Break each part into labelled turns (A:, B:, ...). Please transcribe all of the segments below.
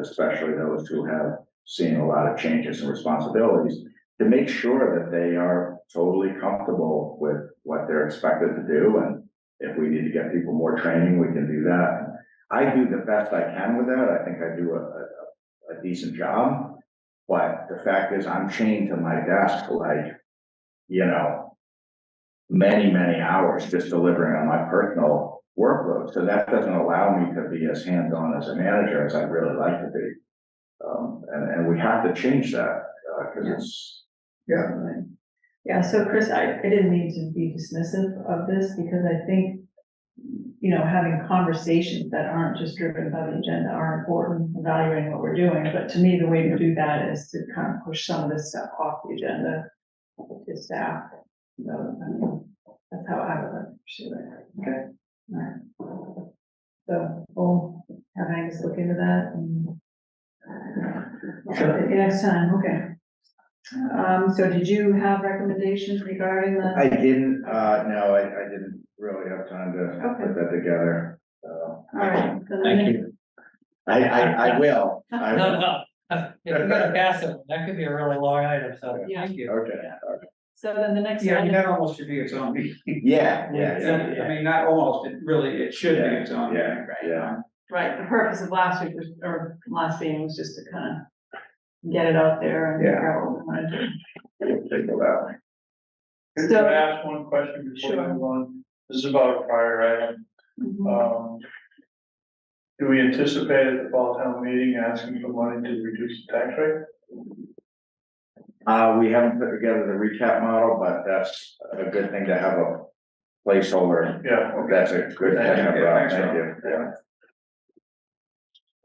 A: especially those who have seen a lot of changes and responsibilities, to make sure that they are totally comfortable with what they're expected to do, and if we need to get people more training, we can do that. I do the best I can with that, I think I do a, a, a decent job, but the fact is, I'm chained to my desk like, you know, many, many hours just delivering on my personal workload, so that doesn't allow me to be as hands-on as a manager as I'd really like to be. Um, and, and we have to change that, uh, cause it's, yeah,
B: Yeah, so Chris, I, I didn't mean to be dismissive of this because I think, you know, having conversations that aren't just driven by the agenda are important, evaluating what we're doing. But to me, the way to do that is to kind of push some of this stuff off the agenda to staff. So, I mean, that's how I would like to pursue it. Okay. Alright. So we'll have Angus look into that and
A: Sure.
B: Yeah, next time, okay. Um, so did you have recommendations regarding the?
A: I didn't, uh, no, I, I didn't really have time to
B: Okay.
A: put that together. uh,
B: All right. so the
C: Thank
B: minute-
C: you.
A: I, I, I will, I
C: No,
A: will,
C: no, if you're gonna pass it, that could be a really long item, so thank you.
A: okay,
B: So then the next
D: Yeah, I mean,
B: item,
D: that almost should be its own meeting.
A: yeah, yeah, yeah,
D: I mean, not almost, it really, it should be its own
A: Yeah,
D: meeting, right?
A: yeah.
B: right, the purpose of last week was, or last meeting was just to kind of get it out there and
A: Yeah.
B: figure out what we want to do.
A: We'll take it out.
E: Could
B: So-
E: I ask one question before
B: Sure.
E: we move on? This is about a prior item.
B: Mhm.
E: Um, do we anticipate at the fall town meeting asking for money to reduce the tax rate?
A: Uh, we haven't put together the recap model, but that's a good thing to have a placeholder,
E: Yeah,
A: that's a good thing,
D: Thank you.
A: uh,
D: Thanks,
A: thank
D: Rob.
A: you, yeah.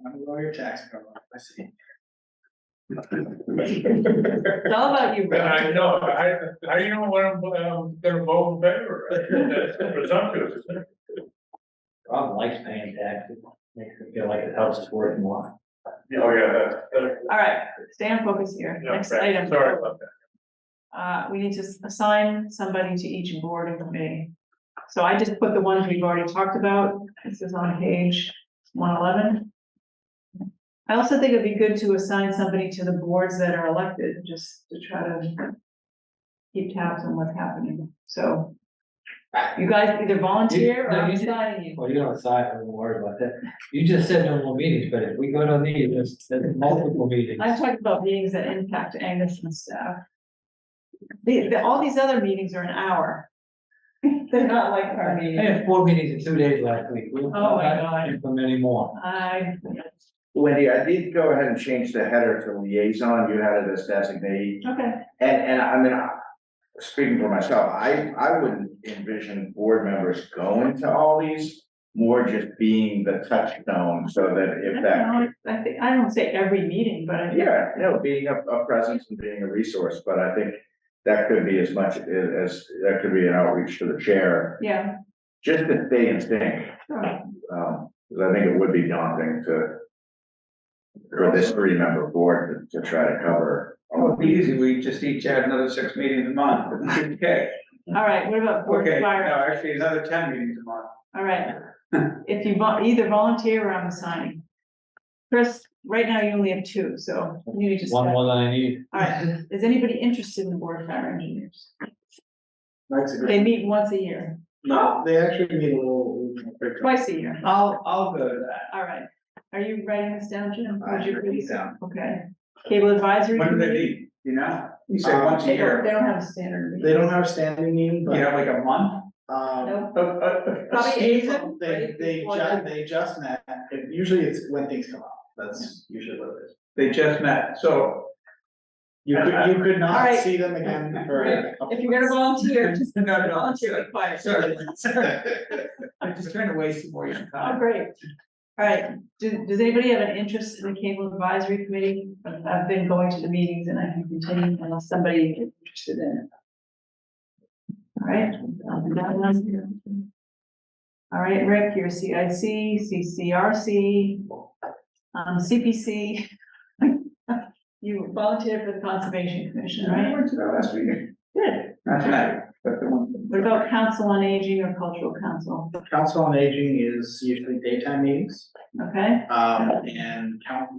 D: I'm a lawyer tax bill, I see.
B: It's all about you,
E: But
B: Rick.
E: I know, I, I know what I'm, um, gonna vote in favor of, that's presumptuous. isn't it?
C: Rob likes paying taxes, makes him feel like the house is worth more.
E: Oh, yeah, that's, that's,
B: All right, stay on focus here.
E: yeah,
B: Next
E: right.
B: item.
E: sorry about that.
B: Uh, we need to s- assign somebody to each board and committee. So I just put the ones we've already talked about. This is on page one eleven. I also think it'd be good to assign somebody to the boards that are elected, just to try to keep tabs on what's happening. So you guys either volunteer or
C: No,
B: I'm
C: you did-
B: assigning you.
C: Well, you don't decide, I don't worry about that. You just said no more meetings, but if we go to these, there's, there's multiple meetings.
B: I'm talking about meetings that impact Angus and staff. The, the, all these other meetings are an hour. They're not like our
C: I
B: meetings.
C: had four meetings in two days last week. We'll
B: Oh, my God.
C: Implement any more.
B: I,
A: Wendy, I did go ahead and change the header to liaison, you had it as designee.
B: okay,
A: And, and I mean, I- speaking for myself, I, I wouldn't envision board members going to all these. More just being the touchstone so that
B: I
A: if
B: don't
A: that,
B: know, I think, I don't say every meeting, but I think,
A: yeah, you know, being a, a presence and being a resource, but I think. That could be as much as, that could be an outreach to the chair,
B: yeah.
A: just to stay in sync,
B: sure.
A: um, 'cause I think it would be daunting to. For this three member board to, to try to cover.
D: Oh, it'd be easy, we just each add another six meetings a month, okay,
B: All right, what about board
D: okay, no,
B: fire?
D: actually, another ten meetings a month.
B: All right. If you vol- either volunteer or I'm assigning. Chris, right now you only have two, so you need to.
C: One
B: start.
C: more than I need.
B: All right, is anybody interested in board of fire engineers?
D: That's a
B: They meet once a year,
D: No, they actually need a little.
B: twice a year.
D: I'll, I'll go to that.
B: All right. Are you writing this down, Jim? Would you please?
D: Down.
B: Okay. Cable advisory.
D: When do they
B: committee?
D: meet, you know? You
F: Um,
D: said once a
B: They don't, they
D: year,
B: don't have a standard. meeting.
F: They don't have standing meeting,
D: you
F: but,
D: have like a month?
F: um,
B: Nope.
D: Uh, uh, uh,
B: Probably April,
F: they,
B: right
F: they
B: before
F: ju-
B: that.
F: they just met, and usually it's when things come up, that's usually what it is.
D: They just met, so
F: You could, you could not
B: Alright.
F: see them again for a couple
B: If you're gonna volunteer, just
D: No, no,
B: volunteer required.
D: Sorry.
F: months.
D: I'm just trying to waste some more of your
B: Oh,
D: time.
B: great. All right, do, does anybody have an interest in the cable advisory committee? I've- I've been going to the meetings and I can continue unless somebody is interested in it. All right. I'll do that one. All right, Rick, you're CIC, CCRC, um, CPC. You volunteered for the Conservation Commission,
D: I
B: right?
D: went to that last meeting.
B: Good.
D: That's right. That's the one.
B: What about Council on Aging or Cultural Council?
F: Council on Aging is usually daytime meetings,
B: Okay?
F: um, and coun-